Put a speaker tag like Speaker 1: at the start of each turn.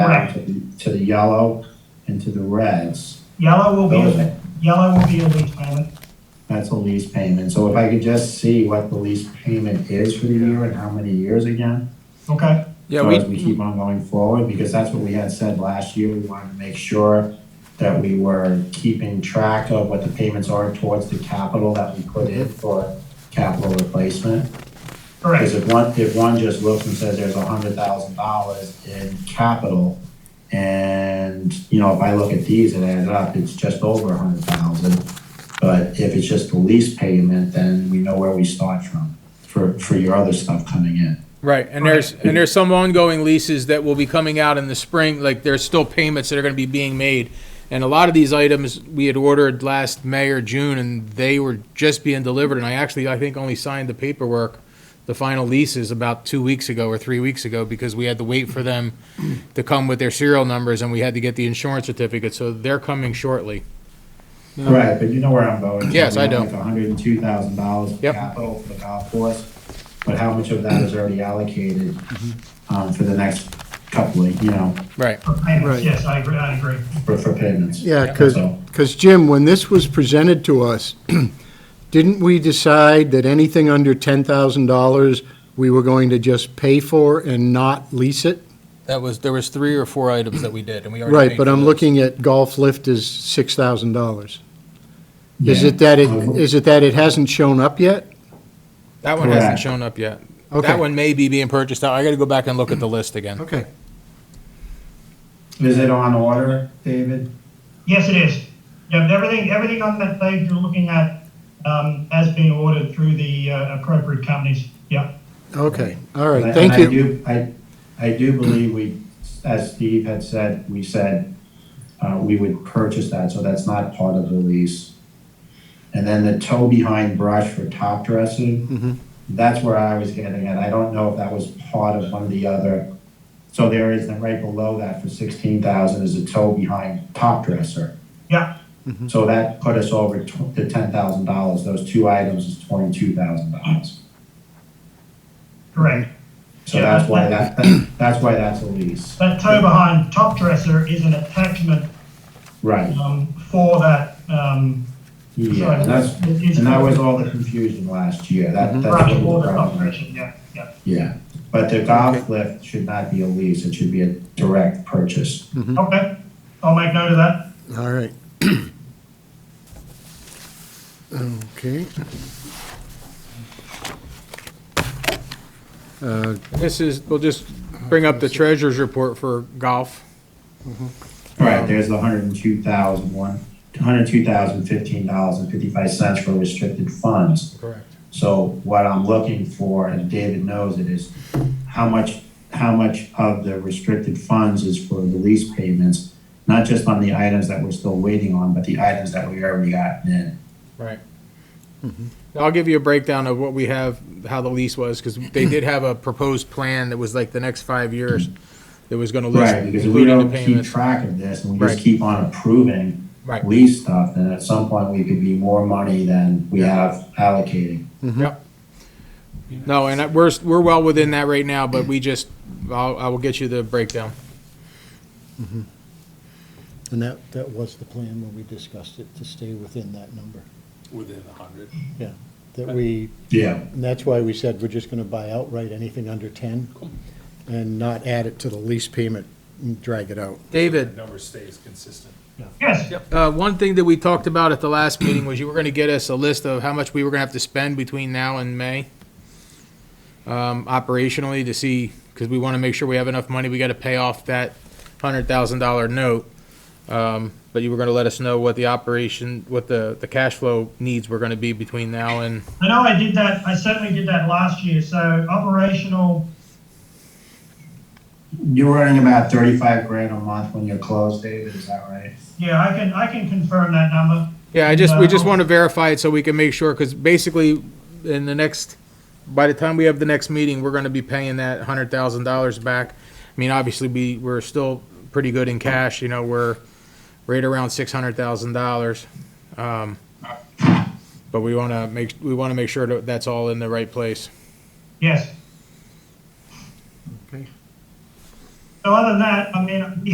Speaker 1: back to the, to the yellow and to the reds.
Speaker 2: Yellow will be,
Speaker 1: Okay.
Speaker 2: a yellow will be a lease payment.
Speaker 1: That's a lease payment. So if I could just see what the lease payment is for the year and how many years again?
Speaker 2: Okay,
Speaker 3: Yeah,
Speaker 1: so
Speaker 3: we,
Speaker 1: as we keep on going forward, because that's what we had said last year, we wanted to make sure that we were keeping track of what the payments are towards the capital that we put in for capital replacement. Because
Speaker 2: correct.
Speaker 1: if one, if one just looks and says there's a hundred thousand dollars in capital, and, you know, if I look at these and add it up, it's just over a hundred thousand. But if it's just the lease payment, then we know where we start from, for, for your other stuff coming in.
Speaker 3: right, and there's, and there's some ongoing leases that will be coming out in the spring, like there's still payments that are gonna be being made. And a lot of these items we had ordered last May or June, and they were just being delivered, and I actually, I think, only signed the paperwork, the final leases about two weeks ago or three weeks ago, because we had to wait for them to come with their serial numbers, and we had to get the insurance certificate, so they're coming shortly.
Speaker 1: Right, but you know where I'm going.
Speaker 3: Yes, I do.
Speaker 1: hundred and two thousand dollars
Speaker 3: Yep.
Speaker 1: capital for the golf course, but how much of that is already allocated,
Speaker 3: Mm-hmm.
Speaker 1: um, for the next couple of, you know,
Speaker 3: Right,
Speaker 2: For payments,
Speaker 4: Right.
Speaker 2: yes, I agree, I agree.
Speaker 1: for, for payments?
Speaker 4: Yeah, because,
Speaker 1: So-
Speaker 4: Jim, when this was presented to us, didn't we decide that anything under $10,000, we were going to just pay for and not lease it?
Speaker 3: that was, there was three or four items that we did, and we already.
Speaker 4: Right,
Speaker 3: paid
Speaker 4: but
Speaker 3: for
Speaker 4: I'm
Speaker 3: those.
Speaker 4: looking at golf lift is $6,000. Is
Speaker 1: Yeah.
Speaker 4: it that it,
Speaker 1: Um,
Speaker 4: is it that it hasn't shown up yet?
Speaker 3: That one hasn't
Speaker 1: Correct.
Speaker 3: shown up yet.
Speaker 4: Okay.
Speaker 3: That one may be being purchased out. I gotta go back and look at the list again.
Speaker 4: Okay.
Speaker 1: Is it on order, David?
Speaker 2: Yes, it is. Yep, everything, everything on that page you're looking at, um, has been ordered through the uh, appropriate companies. Yep.
Speaker 4: Okay, all right,
Speaker 1: And
Speaker 4: thank
Speaker 1: I
Speaker 4: you.
Speaker 1: do, I, I do believe we, as Steve had said, we said, uh, we would purchase that, so that's not part of the lease. And then the toe behind brush for top
Speaker 4: Mhm.
Speaker 1: dressing, that's where I was getting at. I don't know if that was part of one of the other. So there is, then right below that for sixteen thousand is a toe behind top dresser.
Speaker 2: Yeah.
Speaker 1: So that put us over tw- to ten thousand dollars. Those two items is twenty-two thousand dollars.
Speaker 2: correct.
Speaker 1: So that's why that, that's why that's a lease.
Speaker 2: That toe behind top dresser is an attachment,
Speaker 1: Right,
Speaker 2: um, for that, um,
Speaker 1: yeah,
Speaker 2: sorry,
Speaker 1: and that's,
Speaker 2: it is-
Speaker 1: and that was all the confusion last year, that, that's
Speaker 2: Right,
Speaker 1: what
Speaker 2: for
Speaker 1: was
Speaker 2: the
Speaker 1: the
Speaker 2: top
Speaker 1: problem.
Speaker 2: dresser, yeah, yeah.
Speaker 1: Yeah, but the golf lift should not be a lease, it should be a direct purchase.
Speaker 2: Okay, I'll make note of that.
Speaker 4: All right. Okay. Uh,
Speaker 3: This is, we'll just bring up the treasurer's report for golf. Um,
Speaker 1: Right, there's the hundred and two thousand one, hundred and two thousand fifteen dollars and fifty-five cents for restricted funds.
Speaker 3: Correct.
Speaker 1: So what I'm looking for, and David knows it, is how much, how much of the restricted funds is for the lease payments? Not just on the items that we're still waiting on, but the items that we already gotten in.
Speaker 3: Right. Mm-hmm. I'll give you a breakdown of what we have, how the lease was, because they did have a proposed plan that was like the next five years that was gonna list,
Speaker 1: Right, because if we
Speaker 3: including the
Speaker 1: don't keep
Speaker 3: payments.
Speaker 1: track of this and we just
Speaker 3: Right.
Speaker 1: keep on approving
Speaker 3: Right.
Speaker 1: lease stuff, then at some point we could be more money than we have allocated.
Speaker 3: Yep. No, and I- we're, s- we're well within that right now, but we just, I'll, I will get you the breakdown.
Speaker 5: And that, that was the plan when we discussed it, to stay within that number,
Speaker 6: within a hundred.
Speaker 5: yeah. That we,
Speaker 1: Yeah.
Speaker 5: and that's why we said we're just gonna buy outright anything under ten and not add it to the lease payment and drag it out.
Speaker 3: David,
Speaker 6: The number stays consistent.
Speaker 2: Yes,
Speaker 3: Uh, one thing that we talked about at the last meeting was you were gonna get us a list of how much we were gonna have to spend between now and May. Um, operationally to see, cause we wanna make sure we have enough money, we gotta pay off that hundred thousand dollar note. Um, but you were gonna let us know what the operation, what the, the cash flow needs were gonna be between now and,
Speaker 2: I know I did that, I certainly did that last year, so operational,
Speaker 1: You're earning about thirty-five grand a month when you're closed, David, is that right?
Speaker 2: yeah, I can, I can confirm that number.
Speaker 3: yeah, I just, we just
Speaker 2: No.
Speaker 3: wanna verify it so we can make sure, cause basically in the next, by the time we have the next meeting, we're gonna be paying that hundred thousand dollars back. I mean, obviously, we, we're still pretty good in cash, you know, we're right around six hundred thousand dollars. Um, But we wanna make, we wanna make sure that that's all in the right place.
Speaker 2: Yes.
Speaker 4: Okay.
Speaker 2: So other than that, I mean,